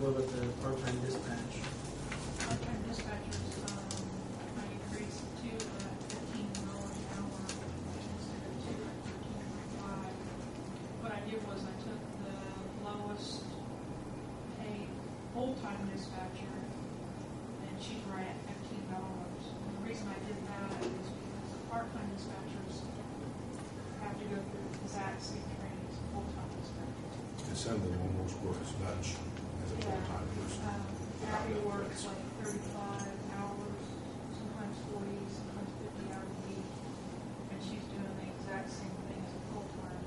look at the part-time dispatch. Part-time dispatchers, um, I increased to uh, fifteen dollars an hour instead of two at thirteen point five. What I did was I took the lowest paid full-time dispatcher, and she's right at fifteen dollars. And the reason I did that is because the part-time dispatchers have to go through the exact same training as a full-time dispatcher. Assembly almost works Dutch as a Yeah. full-time person. Um, Abby works like thirty-five hours, sometimes forty, sometimes fifty hours a week, and she's doing the exact same thing as a full-time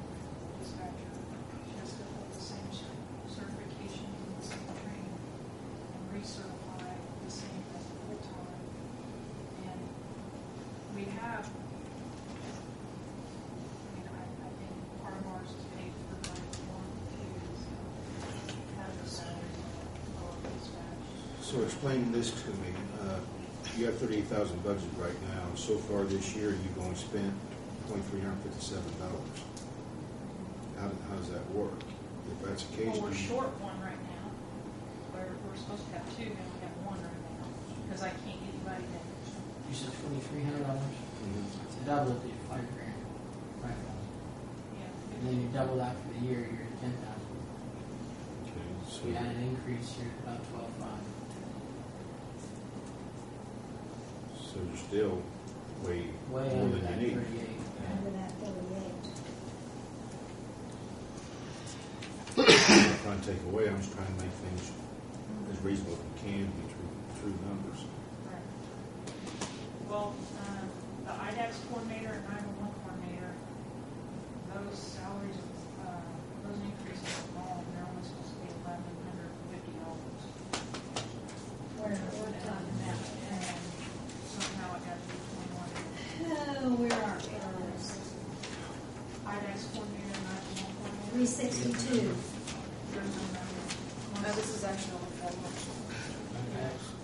dispatcher. She has to hold the same cer- certifications and the same training, and recertify the same as a full-time. And we have, I mean, I, I think part of ours is paid for by one, two, have the salaries lower dispatch. So explain this to me. Uh, You have thirty-eight thousand budget right now, and so far this year, you've only spent twenty-three hundred fifty-seven dollars. How, do- how does that work? If that's the case, Well, we're do you- short one right now. We're, we're supposed to have two, and we have one right now, because I can't get anybody that, You said twenty-three hundred dollars? Mhm. So double it, you're five grand. Right. And yeah. then you double that for the year, you're at ten thousand. Okay, So you had so, an increase, you're at about twelve-five. so you're still way more Way under that than you need. thirty-eight. under that thirty-eight. I'm not trying to take away, I'm just trying to make things as reasonable as we can, be true, true numbers. Right. Well, um, the IDAS coordinator and nine-one-one coordinator, those salaries, uh, those increases are wrong. They're only supposed to be eleven hundred and fifty dollars. We're, we're And that, and talking somehow it got to be twenty-one. about, oh, where are we on this? IDAS coordinator and nine-one-one coordinator. Three sixty-two. No, No, this is actually only that much.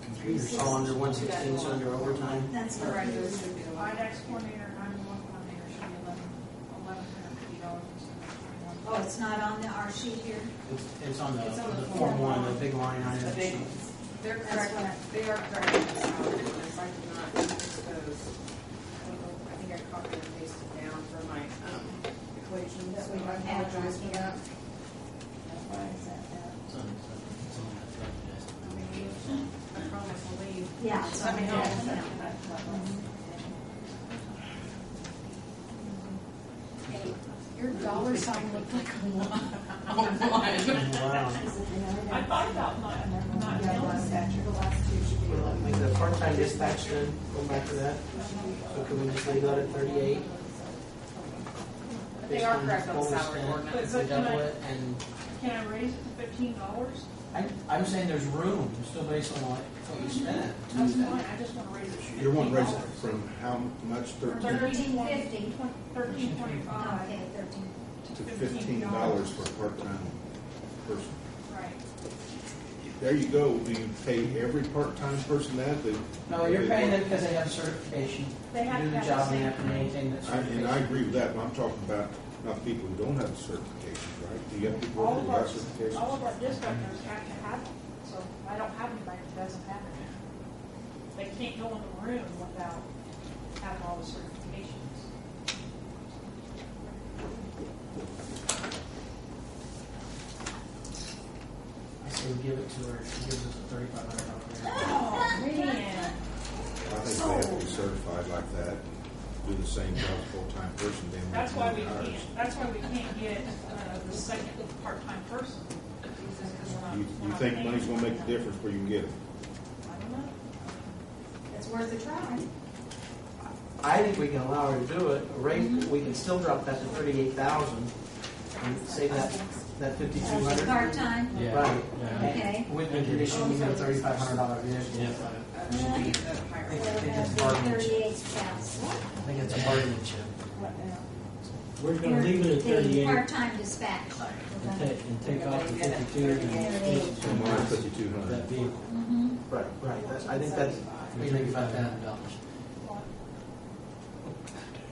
Computers all under one sixteen, so under overtime. That's All what right, it this is. should be the one. IDAX coordinator, nine-one-one coordinator should be eleven, eleven hundred fifty dollars instead of twenty-one. Oh, it's not on the, our sheet here? It's, it's on the, It's on the the form form one, the one. big line The item. big ones. They're correct, they are correct. I did not use those. I don't know, I think I copied and pasted down for my um, equation, That so we I don't have apologize for on that. Why is that there? It's on, it's on that front desk. I promise I'll leave. Yeah. it's Let me on uh, know. there. Yeah. Your dollar sign looked like a one. Oh, Wow. I thought about not, not telling them. The last two should be Well, eleven. Like um, the part-time dispatch then, go back to that. So can we just leave that at thirty-eight? But they are correct on the salary If ordinance. we double it and, Can I raise it to fifteen dollars? I, I'm saying there's room, it's still based on what, what you spent. That's fine, I just want to raise it to You're fifteen one dollars. resident from how much, thirteen Thirteen fifty, $13.50. thirteen twenty-five, Okay, thirteen. to fifteen dollars for a part-time person? right. There you go, do you pay every part-time person that? that- No, you're paying them because they have certification, They have do to the have job and the same. have to maintain that I- And I certification. agree with that, but I'm talking about not people who don't have certifications, right? Do you have people All of who have our, all certifications? of our dispatchers have to have them, so I don't have anybody that doesn't have it. They can't go in the room without having all the certifications. I say we give it to her, she gives us a thirty-five hundred dollar grant. Oh, man. I think they have to be certified like that, and do the same job as a full-time person, then. That's why we hires. can't, that's why we can't get uh, the second part-time person. It's because we're not- You, we're you not think paying money's gonna make a them. difference where you can get them? I don't know. It's worth a try. I think we can allow her to do it, raise, we can still drop that to thirty-eight thousand and save that, that fifty-two That's hundred. part-time. Yeah. Right. Yeah. Okay. And With the condition, we get a thirty-five hundred dollar vehicle. Yeah. Uh, should be the higher. I think that's bargaining chip. Thirty-eight thousand. I think it's a bargaining chip. What now? We're gonna leave it at The thirty-eight part-time dispatch. and take, and take off the fifty-two and Mine compromise fifty-two hundred. that vehicle. Mhm. Right, right, that's, I think that's, we think about that in dollars.